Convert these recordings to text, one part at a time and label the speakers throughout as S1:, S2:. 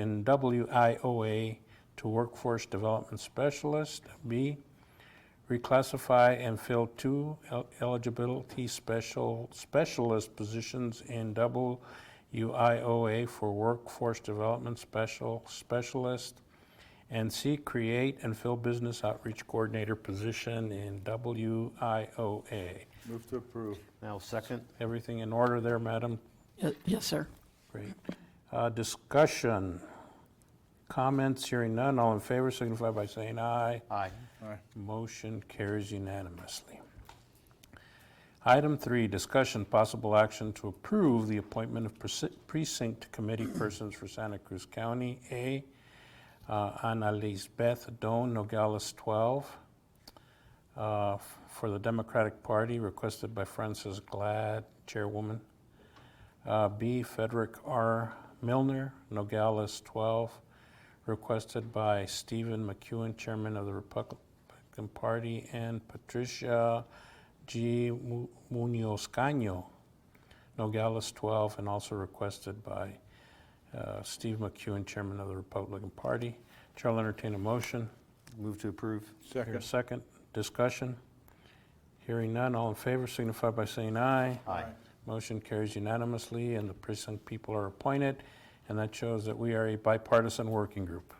S1: in WIOA to Workforce Development Specialist. B, reclassify and fill two el- eligibility special, specialist positions in WIOA for Workforce Development Special, Specialist. And C, create and fill business outreach coordinator position in WIOA.
S2: Move to approve.
S3: Now, second?
S1: Everything in order there, Madam
S4: Ye- Yes, sir.
S1: Great. Uh, Discussion, comments, hearing none, all in favor signify by saying aye.
S3: Aye.
S2: Aye.
S1: Motion carries unanimously. Item three, discussion, possible action to approve the appointment of preci- precinct committee persons for Santa Cruz County. A, uh, Ana Lisbeth Doan Nogales 12, uh, f- for the Democratic Party, requested by Frances Glad, Chairwoman. Uh, B, Frederick R. Milner, Nogales 12, requested by Stephen McEwen, Chairman of the Republican Party, and Patricia G. Mu- Munoz Caño, Nogales 12, and also requested by uh, Steve McEwen, Chairman of the Republican Party. Chair will entertain a motion.
S3: Move to approve?
S1: Hear a
S2: Second.
S1: second. Discussion? Hearing none, all in favor signify by saying aye.
S3: Aye.
S1: Motion carries unanimously, and the precinct people are appointed, and that shows that we are a bipartisan working group.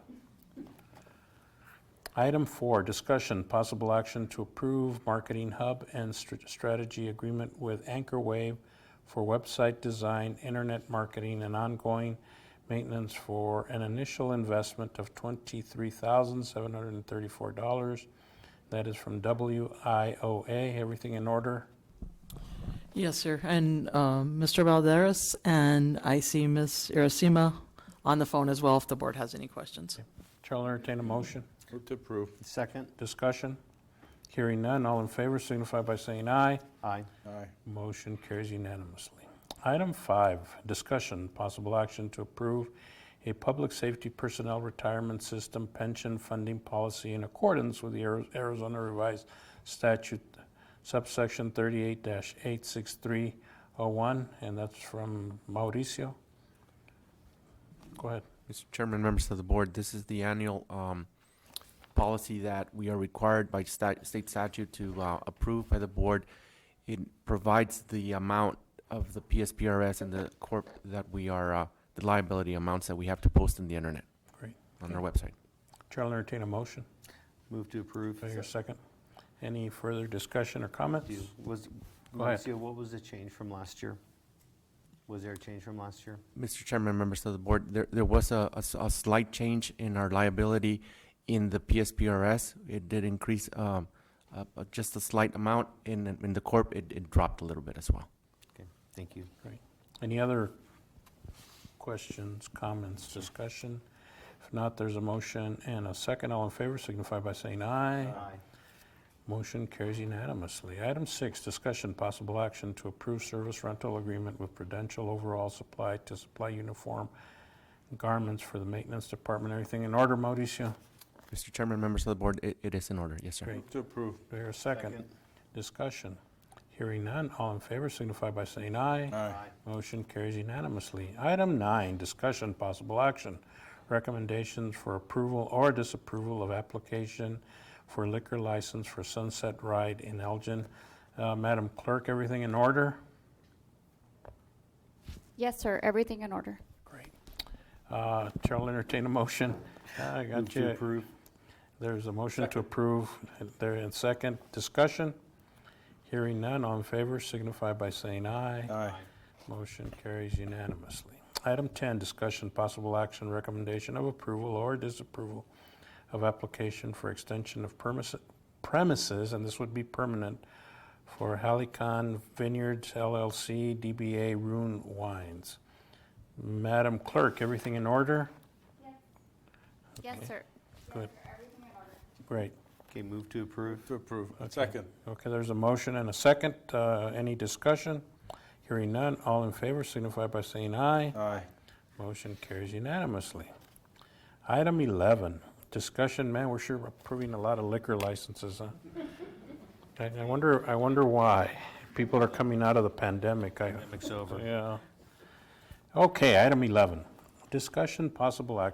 S1: Item four, discussion, possible action to approve marketing hub and str- strategy agreement with Anchor Wave for website design, internet marketing, and ongoing maintenance for an initial investment of $23,734. That is from WIOA. Everything in order?
S4: Yes, sir. And um, Mr. Valderas, and I see Ms. Irasima on the phone as well if the board has any questions.
S1: Chair will entertain a motion.
S2: Move to approve.
S3: Second?
S1: Discussion? Hearing none, all in favor signify by saying aye.
S3: Aye.
S2: Aye.
S1: Motion carries unanimously. Item five, discussion, possible action to approve a public safety personnel retirement system pension funding policy in accordance with the Ari- Arizona Revised Statute subsection 38-86301, and that's from Mauricio. Go ahead.
S5: Mr. Chairman, members of the board, this is the annual um, policy that we are required by stat- state statute to uh, approve by the board. It provides the amount of the PSPRS and the corp that we are, uh, the liability amounts that we have to post in the internet,
S1: Great.
S5: on our website.
S1: Chair will entertain a motion.
S3: Move to approve?
S1: Do I hear a second? Any further discussion or comments?
S3: Do- Was,
S1: Go ahead.
S3: Mauricio, what was the change from last year? Was there a change from last year?
S5: Mr. Chairman, members of the board, there, there was a, a s- a slight change in our liability in the PSPRS. It did increase um, uh, uh, just a slight amount. In, in the corp, it, it dropped a little bit as well.
S3: Okay, thank you.
S1: Any other questions, comments, discussion? If not, there's a motion and a second. All in favor signify by saying aye. Motion carries unanimously. Item six, discussion, possible action to approve service rental agreement with Prudential Overall Supply to supply uniform garments for the maintenance department. Everything in order, Mauricio?
S5: Mr. Chairman, members of the board, it, it is in order, yes, sir.
S1: Great.
S2: Move to approve.
S1: Do I hear a second? Discussion. Hearing none, all in favor signify by saying aye.
S2: Aye.
S1: Motion carries unanimously. Item nine, discussion, possible action, recommendations for approval or disapproval of application for liquor license for Sunset Ride in Elgin. Uh, Madam Clerk, everything in order?
S6: Yes, sir, everything in order.
S1: Great. Uh, Chair will entertain a motion. I
S3: Move
S1: got
S3: to
S1: you.
S3: approve?
S1: There's a motion to approve. There in second. Discussion? Hearing none, all in favor signify by saying aye.
S2: Aye.
S1: Motion carries unanimously. Item 10, discussion, possible action, recommendation of approval or disapproval of application for extension of premise- premises, and this would be permanent, for Halicon Vineyards LLC, DBA Rune Wines. Madam Clerk, everything in order?
S6: Yes, sir.
S1: Good. Great.
S3: Okay, move to approve?
S2: Move to approve. Second.
S1: Okay, there's a motion and a second. Uh, Any discussion? Hearing none, all in favor signify by saying aye.
S2: Aye.
S1: Motion carries unanimously. Item 11, discussion, man, we're sure approving a lot of liquor licenses, huh? I I wonder, I wonder why. People are coming out of the pandemic, I,
S3: Pandemic's over.
S1: yeah. Okay, item 11, discussion, possible action